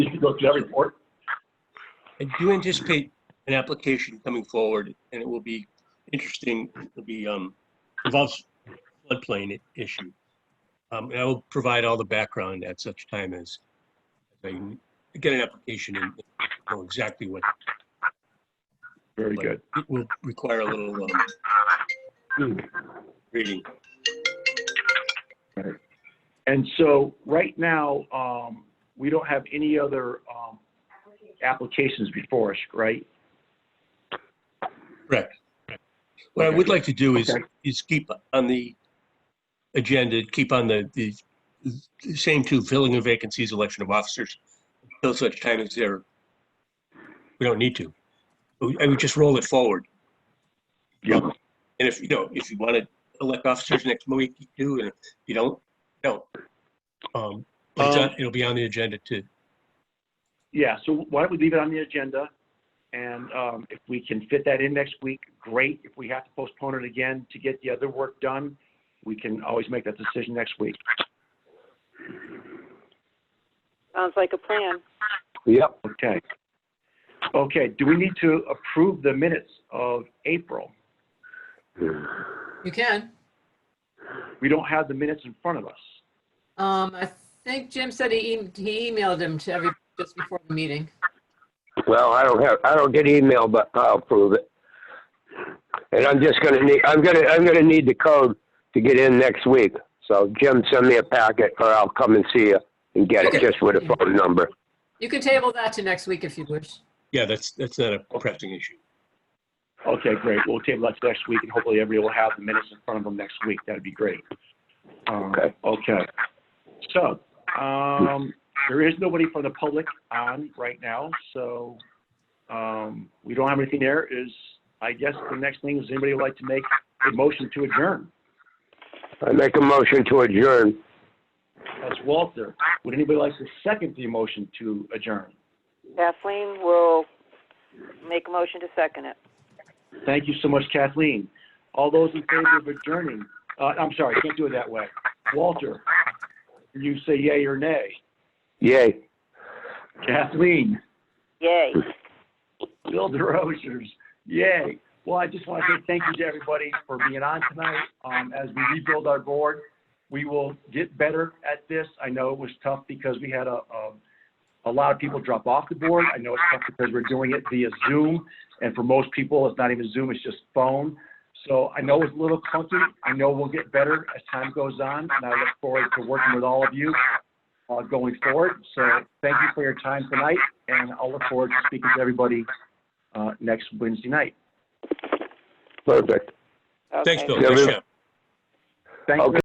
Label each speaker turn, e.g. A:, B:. A: You could go through that report.
B: I do anticipate an application coming forward, and it will be interesting. It'll be, um, involves floodplain i- issue. Um, and I will provide all the background at such time as I get an application and know exactly what
A: Very good.
B: it will require a little, um, reading.
A: And so right now, um, we don't have any other, um, applications before us, right?
B: Correct. What I would like to do is,
A: Okay.
B: is keep on the agenda, keep on the, the the same two, filling of vacancies, election of officers, until such time as there, we don't need to. We- I would just roll it forward.
A: Yeah.
B: And if, you know, if you want to elect officers next week, you do, and if you don't, don't. Um, but it's on- It'll be on the agenda to,
A: Yeah, so why don't we leave it on the agenda? And um, if we can fit that in next week, great. If we have to postpone it again to get the other work done, we can always make that decision next week.
C: Sounds like a plan.
A: Yep. Okay. Okay, do we need to approve the minutes of April?
D: You can.
A: We don't have the minutes in front of us.
D: Um, I think Jim said he, em- he emailed them to every, just before the meeting.
E: Well, I don't have, I don't get email, but I'll prove it. And I'm just gonna need, I'm gonna, I'm gonna need the code to get in next week. So Jim, send me a packet or I'll come and see you and get it
D: Okay.
E: just with a phone number.
D: You can table that to next week if you wish.
B: yeah, that's, that's not a pressing issue.
A: Okay, great. We'll table that to next week, and hopefully everybody will have the minutes in front of them next week. That'd be great. Um,
E: Okay.
A: Okay. So, um, there is nobody from the public on right now, so, um, we don't have anything there. Is, I guess the next thing is anybody would like to make a motion to adjourn?
E: I make a motion to adjourn.
A: That's Walter. Would anybody like to second the motion to adjourn?
C: Kathleen will make a motion to second it.
A: Thank you so much, Kathleen. All those in favor of adjourning, uh, I'm sorry, can't do it that way. Walter, you say yay or nay?
E: Yay.
A: Kathleen,
C: Yay.
A: Bill DeRosiers, yay. Well, I just want to say thank you to everybody for being on tonight. Um, as we rebuild our board, we will get better at this. I know it was tough because we had a, a, a lot of people drop off the board. I know it's tough because we're doing it via Zoom. And for most people, it's not even Zoom, it's just phone. So I know it's a little clunky. I know we'll get better as time goes on. And I look forward to working with all of you uh, going forward. So thank you for your time tonight, and I'll look forward to speaking to everybody uh, next Wednesday night.
E: Perfect.
B: Thanks,
C: Okay.
B: Bill. Nice
E: Yeah, we-
B: job.
A: Thank you.
E: Okay.